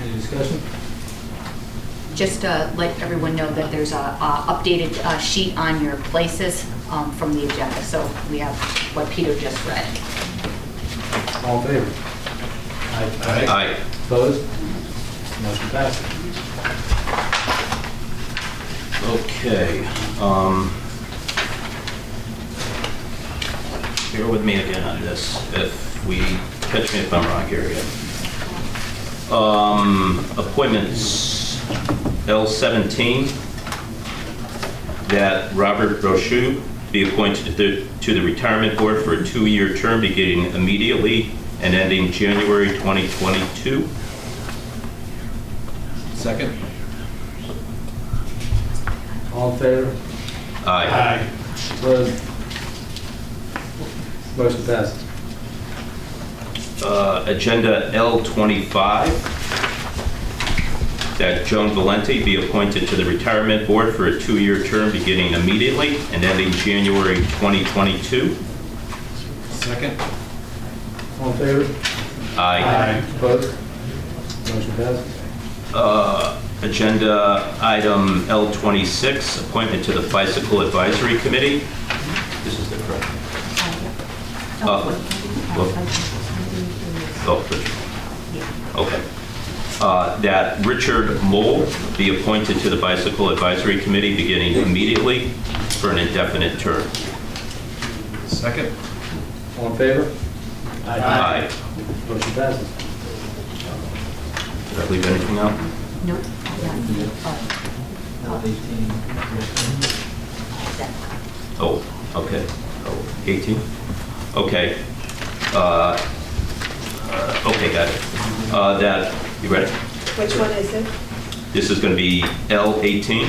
Any discussion? Just to let everyone know that there's a a updated uh, sheet on your places um, from the agenda, so we have what Peter just read. All in favor? Aye. Opposed? Motion passes. Okay. um, Bear with me again on this, if we, catch me if I'm wrong here again. Um, Appointments, L-17, that Robert Brochu be appointed to the- to the Retirement Board for a two-year term beginning immediately and ending January 2022. Second? All in favor? Aye. Opposed? Motion passes. uh, Agenda L25, that Joan Valenti be appointed to the Retirement Board for a two-year term beginning immediately and ending January 2022. Second? All in favor? Aye. Opposed? Motion passes. Uh, Agenda Item L26, appointment to the Bicycle Advisory Committee. This is the correct. Uh, Oh, Richard. Okay. Uh, That Richard Mole be appointed to the Bicycle Advisory Committee beginning immediately for an indefinite term. Second? All in favor? Aye. Motion passes. Did I leave anything out? No, not yet. Oh, that- Oh, okay. Oh, 18? Okay. Uh, uh, Okay, got it. Uh, That, you ready? Which one is it? This is going to be L18.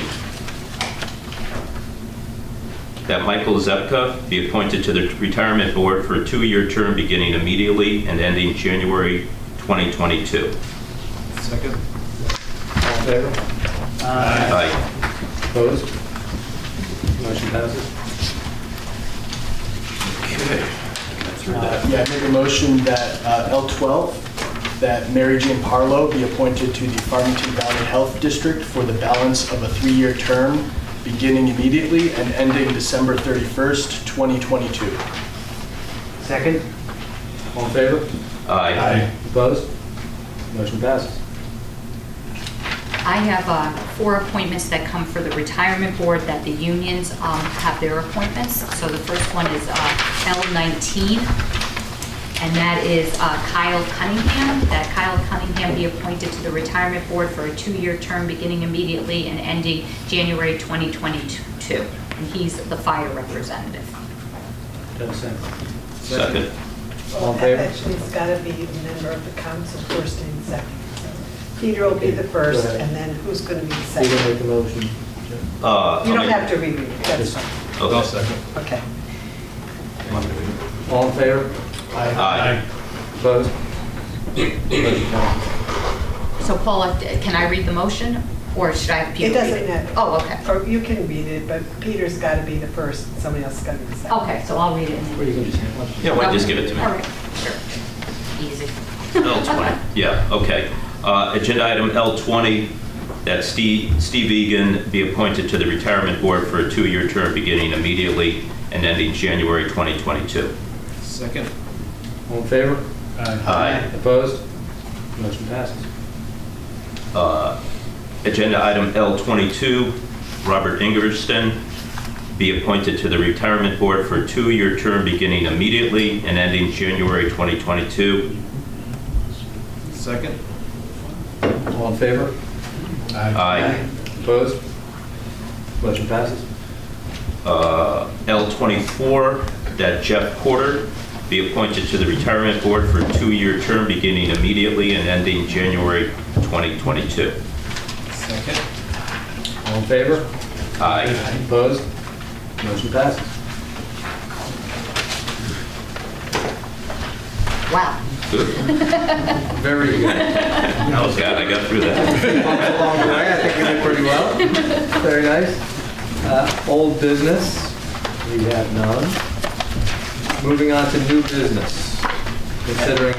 That Michael Zepka be appointed to the Retirement Board for a two-year term beginning immediately and ending January 2022. Second? All in favor? Aye. Opposed? Motion passes. Okay. Got through Uh, that. Yeah, I make a motion that uh, L12, that Mary Jane Parlow be appointed to the Farmington Valley Health District for the balance of a three-year term, beginning immediately and ending December 31st, 2022. Second. All in favor? Aye. Opposed? Motion passes. I have uh, four appointments that come for the retirement board that the unions um, have their appointments. So the first one is uh, L19, and that is uh, Kyle Cunningham. That Kyle Cunningham be appointed to the retirement board for a two-year term beginning immediately and ending January 2022. And he's the fire representative. Ten seconds. Second. All Well, in favor? Actually, it's got to be a member of the council first and second. Peter will be the first, Go ahead. and then who's going to be the Peter second? make the motion. Uh, You I'll don't make- have to read it, that's fine. I'll Okay. second. Okay. All in favor? Aye. Opposed? Motion passes. So Paula, can I read the motion, or should I have Peter It read it? doesn't matter. Oh, okay. Or you can read it, but Peter's got to be the first, and somebody else is going to be the second. Okay, so I'll read it. and then- Or you can just hand one. Yeah, why don't you just give it to me? All right, sure. Easy. L20, yeah, okay. Uh, Agenda item L20, that Steve Steve Egan be appointed to the Retirement Board for a two-year term beginning immediately and ending January 2022. Second? All in favor? Aye. Opposed? Motion passes. Uh, Agenda item L22, Robert Ingersson be appointed to the Retirement Board for a two-year term beginning immediately and ending January 2022. Second? All in favor? Aye. Opposed? Motion passes. uh, L24, that Jeff Porter be appointed to the Retirement Board for a two-year term beginning immediately and ending January 2022. Second? All in favor? Aye. Opposed? Motion passes. Wow. Good. Very good. I was, glad I got through that. Comes along the way. I think we did pretty well. Very nice. Uh, Old business, we have none. Moving on to new business, considering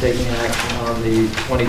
taking action on the 2020